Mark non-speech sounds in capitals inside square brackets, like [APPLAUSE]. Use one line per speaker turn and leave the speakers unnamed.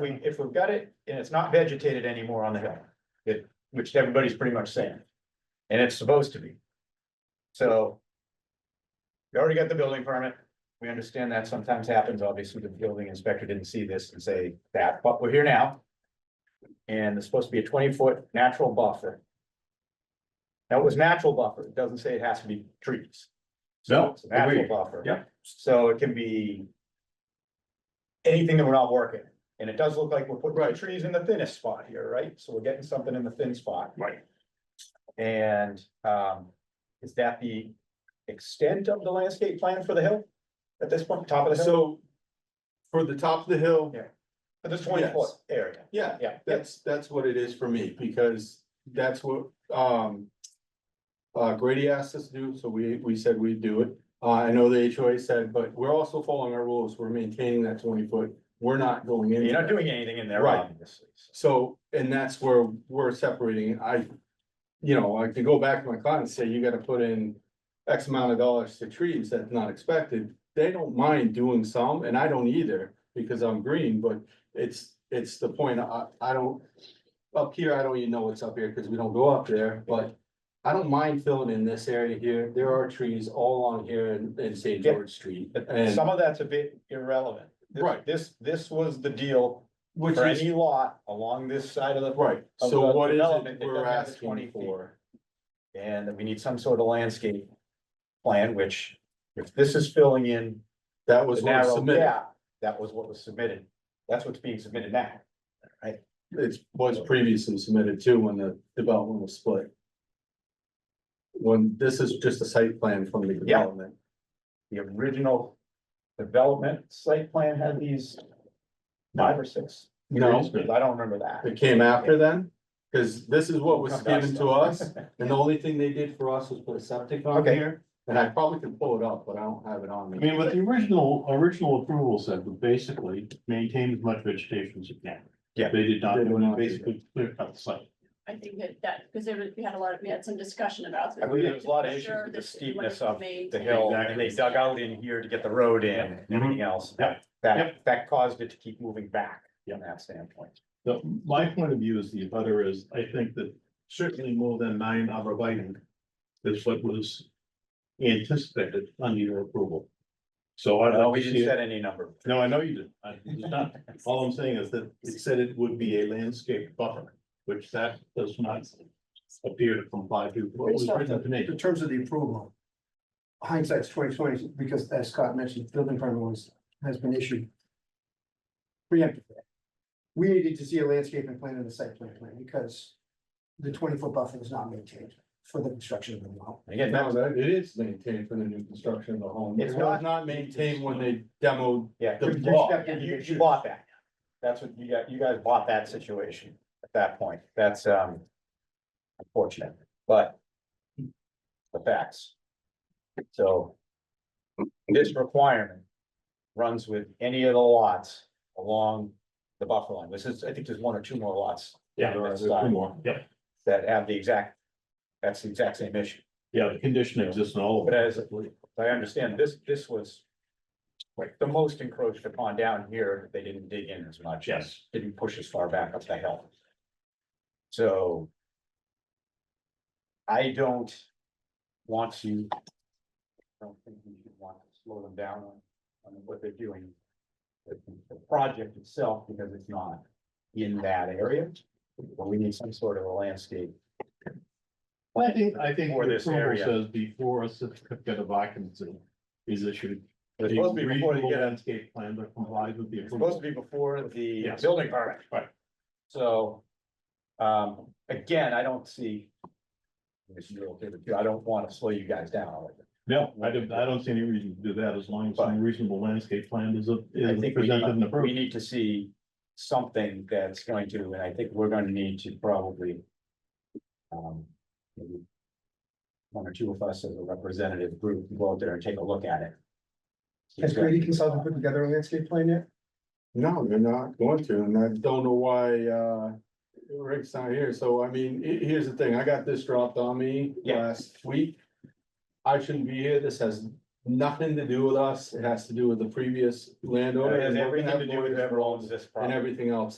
we, if we've got it and it's not vegetated anymore on the hill, it, which everybody's pretty much saying. And it's supposed to be. So. We already got the building permit. We understand that sometimes happens. Obviously, the building inspector didn't see this and say that, but we're here now. And it's supposed to be a twenty foot natural buffer. Now, it was natural buffer. It doesn't say it has to be trees.
No,
It's a natural
agreed.
buffer.
Yeah.
So it can be. Anything that we're not working, and it does look like we're putting
Right.
trees in the thinnest spot here, right? So we're getting something in the thin spot.
Right.
And, um, is that the extent of the landscape plan for the hill? At this point, top of the hill,
So. For the top of the hill,
Yeah. for this twenty foot area, yeah,
yeah,
yeah.
that's, that's what it is for me, because that's what, um. Uh, Grady asked us to do, so we, we said we'd do it. Uh, I know the HOA said, but we're also following our rules. We're maintaining that twenty foot. We're not going in.
You're not doing anything in there,
Right.
obviously. so.
So, and that's where we're separating, I. You know, I could go back to my client and say, you gotta put in X amount of dollars to trees that's not expected. They don't mind doing some, and I don't either, because I'm green, but it's, it's the point, I, I don't. Up here, I don't even know what's up here, cause we don't go up there, but I don't mind filling in this area here, there are trees all on here in, in St.
Yeah.
George Street.
But
And,
some of that's a bit irrelevant. This-
Right.
This, this was the deal
which
for
is,
any lot along this side of the.
right,
of the
so what is
development
it
that
we're
doesn't have the 20
asking
feet.
for?
And that we need some sort of landscape plan, which if this is filling in
That
the
was what was
narrow
submitted.
gap, that was what was submitted. That's what's being submitted now.
It was previously submitted too when the development was split. When, this is just a site plan from the
Yeah.
development.
The original development site plan had these five or six.
No,
I don't remember that.
it came after then, because this is what was
[LAUGHS] Come back
given to
some.
us,
[LAUGHS]
and the only thing they did for us was put a septic on
Okay.
here. And I probably can pull it up, but I don't have it on
I
me.
mean, what the original, original approval said, was basically maintain as much vegetation as you can.
Yeah.
They did not,
They
they
did not do
basically clear cut the site.
I think that, that, because there was, we had a lot, of we had some discussion about. this.
I believe there was a lot of issues
Sure
with the
that it
steepness
was
of
made.
The hill, and they dug out in here to get the road in, and everything else. That, that, that caused it to keep moving back from that standpoint.
The, my point of view is the butter is, I think that certainly more than nine arborvitae is what was anticipated under your approval. So I
No,
don't
we
see
didn't
it.
set any number.
No, I know you didn't. I it's not. All I'm saying is that it said it would be a landscape buffer, which that does not appear to comply to what was written to me.
In terms of the approval. Hindsight's twenty twenty, because as Scott mentioned, building permit was, has been issued. Preemptive. We needed to see a landscaping plan and a site plan plan because. The twenty foot buffer was not maintained for the construction of the well.
Again, that
No,
was,
that, it is maintained for the new construction of the home.
It's
It was not maintained when they demoed,
yeah,
The
you- you
block.
stepped in, you, you bought that. That's what you got, you guys bought that situation at that point. That's, um, unfortunate, but the facts. So this requirement runs with any of the lots along the buffer line. This is, I think there's one or two more lots
Yeah,
there are
there's
two
two more. Yeah,
that have the exact, that's the exact same issue.
yeah, the condition exists in all of
But
them.
as I understand, this, this was like the most encroached upon down here, they didn't dig in as much.
Yes.
Didn't push as far back up the hill. So I don't want to I don't think we should want to slow them down on, on what they're doing. with The project itself, because it's not in that area, but we need some sort of a landscape.
I think, I think
For
what the
this
approval
area.
says before a certificate of occupancy is issued.
It's supposed to be before they
reasonable
get
Landscape plan that complies with the
It's supposed
approval.
to be before the
Yes.
building permit.
Right.
So, um, again, I don't see. If you're okay with it, I don't want to slow you guys down.
No, I don't, I don't see any reason to do that as long as
Fine.
some reasonable landscape plan is, a-
I
is
think we
presented and
need, we
approved.
need to see something that's going to, and I think we're going to need to probably. Um. maybe One or two of us as a representative group go out there and take a look at it.
Has Grady Consulting put together a landscape plan yet?
no, they're not going to, and I don't know why, uh. Rick's not here, so I mean, he- here's the thing, I got this dropped on me
Yeah.
last week. I shouldn't be here, this has nothing to do with us, it has to do with the previous landowner.
It has
and we're gonna
everything
have
to do with
lawyers
whoever owns this
And
property.
everything else